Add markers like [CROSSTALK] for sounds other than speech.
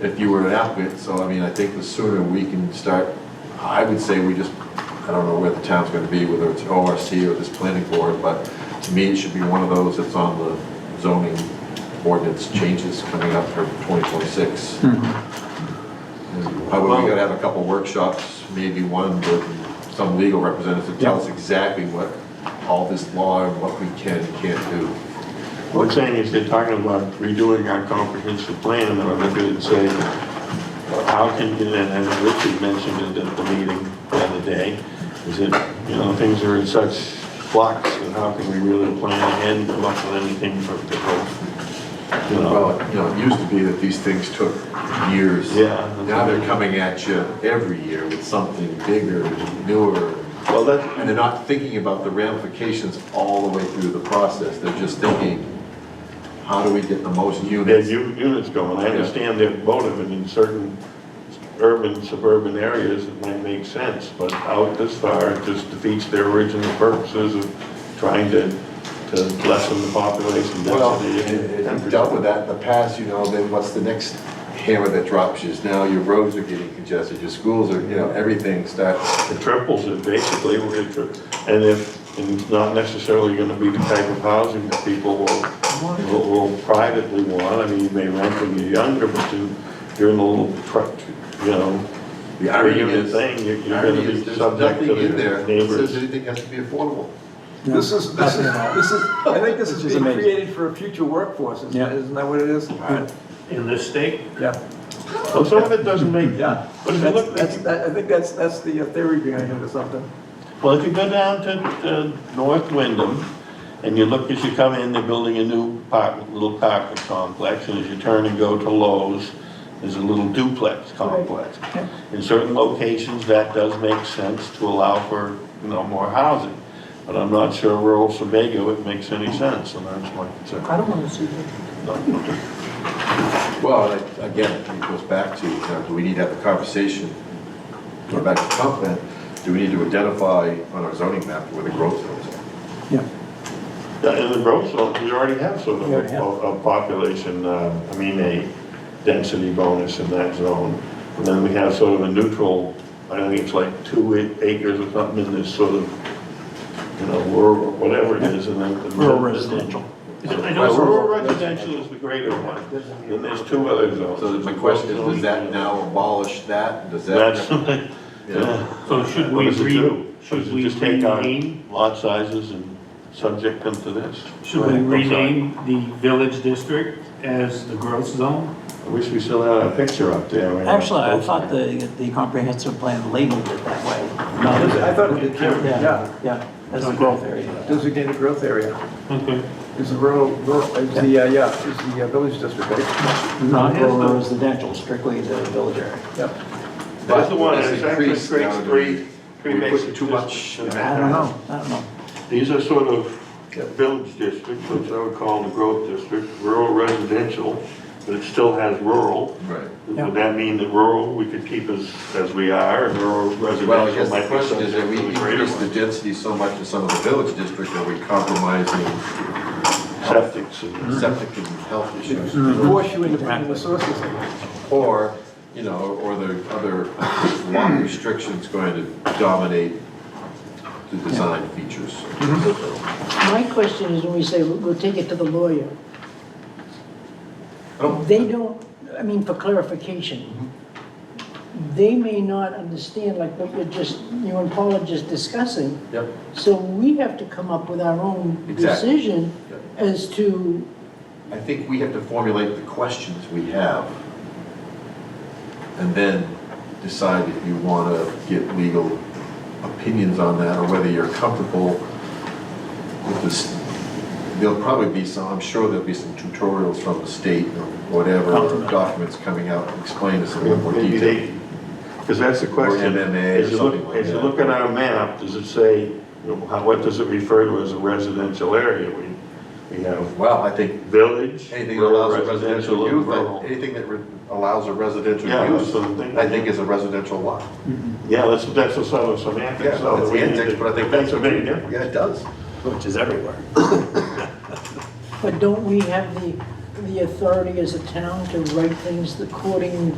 if you were an applicant, so I mean, I think the sooner we can start, I would say we just, I don't know where the town's gonna be, whether it's ORC or this planning board, but to me, it should be one of those that's on the zoning ordinance changes coming up for 2026. Probably we gotta have a couple workshops, maybe one with some legal representative to tell us exactly what all this law and what we can and can't do. What's saying is they're talking about redoing our comprehensive plan, and I'm looking and saying, how can, you- and and Richard mentioned it at the meeting the other day, is that, you know, things are in such flux, and how can we really plan ahead and come up with anything for the whole, you know? Well, you know, it used to be that these things took years. Yeah. Now they're coming at you every year with something bigger, newer, Well, that's, and they're not thinking about the ramifications all the way through the process. They're just thinking, how do we get the most units? there's u- units going, I understand they're votive, and in certain urban, suburban areas, it might make sense, but out this far, it just defeats their original purposes of trying to, to lessen the population Well, density. if you've dealt with that in the past, you know, then what's the next hammer that drops you? Is now your roads are getting congested, your schools are, you know, everything starts It triples it basically, we're gonna tri- and if, and it's not necessarily gonna be the type of housing that people will, will- will privately want, I mean, you may rent when you're younger, but you, you're in a little, tr- you know, The irony You're is, the thing, you're- you're irony gonna be is there's subject to nothing in the there that neighbors. says anything has to be affordable. This is, this is, this is, I think this is Which is being amazing. created for a future workforce, isn't Yeah. isn't that what it is? in this state, Yeah, well, some of it doesn't make, yeah. But if you That's- look- that's- that- I think that's, that's the uh, theory behind it or something. Well, if you go down to, to North Wyndham, and you look, as you come in, they're building a new apartment, little apartment complex, and as you turn and go to Lowe's, there's a little duplex complex. In certain locations, that does make sense to allow for, you know, more housing, but I'm not sure rural Sebago it makes any sense, and that's my concern. I don't want to see that. Well, and I- again, it goes back to, you know, do we need to have the conversation? Go back to comp plan, do we need to identify on our zoning map where the growth zones are? Yeah, Yeah, And the growth zone, you already have sort of You already a, have. a population, uh, I mean, a density bonus in that zone. And then we have sort of a neutral, I think it's like two a- acres or something in this sort of, you know, rural, whatever it is, and then. the- rural residential. I Well, know, Rural residential is the greater one, then there's two other zones. So my question is, does that now abolish that? Does [LAUGHS] That's, that? yeah. so should What we does it re, do? Does should it we just take our rename, Lot sizes and subject them to this. should we Right, I'm sorry. rename the village district as the growth zone? I wish we still had a picture up there. right? Actually, I thought the, the comprehensive plan labeled it that way. I thought it did too, yeah. Yeah, yeah, that's a growth area. Designated growth area Okay. is the rural, rural- is the, uh, yeah, is the uh, village district, right? Not rural residential, strictly the village area. Yeah. That's the one, it's actually increased creates now. three, three We put basic too much in districts. I don't know, I don't know. These are sort of village districts, which I would call the growth district, rural residential, but it still has rural. Right. Would that mean that rural, we could keep as, as we are, and rural Well, I residential guess might the be question is, subject are we to a greater increased the one? density so much in some of the village district, are we compromising Septics and. septic and health issues? Mm-hmm. Force you into finding the sources. Or, you know, or the other lot restrictions going to dominate the design features. My question is when we say, we'll we'll take it to the lawyer, I don't- they don't, I mean, for clarification, they may not understand like what you're just, you and Paul are just discussing, Yep. so we have to come up with our own Exactly. decision Yep. as to, I think we have to formulate the questions we have and then decide if you want to get legal opinions on that or whether you're comfortable with this. There'll probably be some, I'm sure there'll be some tutorials from the state or whatever, or documents coming out to explain this in a little more Maybe detail. they, because that's the question. Or MMA or As you look- something like As you that. look at our map, does it say, you know, how- what does it refer to as a residential area? We, we have Well, I think village. anything that rural, allows a residential and use, rural. I- anything that re- allows a residential Yeah, that's use, what I'm thinking. I think is a residential lot. Yeah, that's, that's a sort of semantic, Yeah, so. it's we need antics, to- but I think That's that's a big difference. Yeah, it does. Which is everywhere. but don't we have the, the the authority as a town to write things according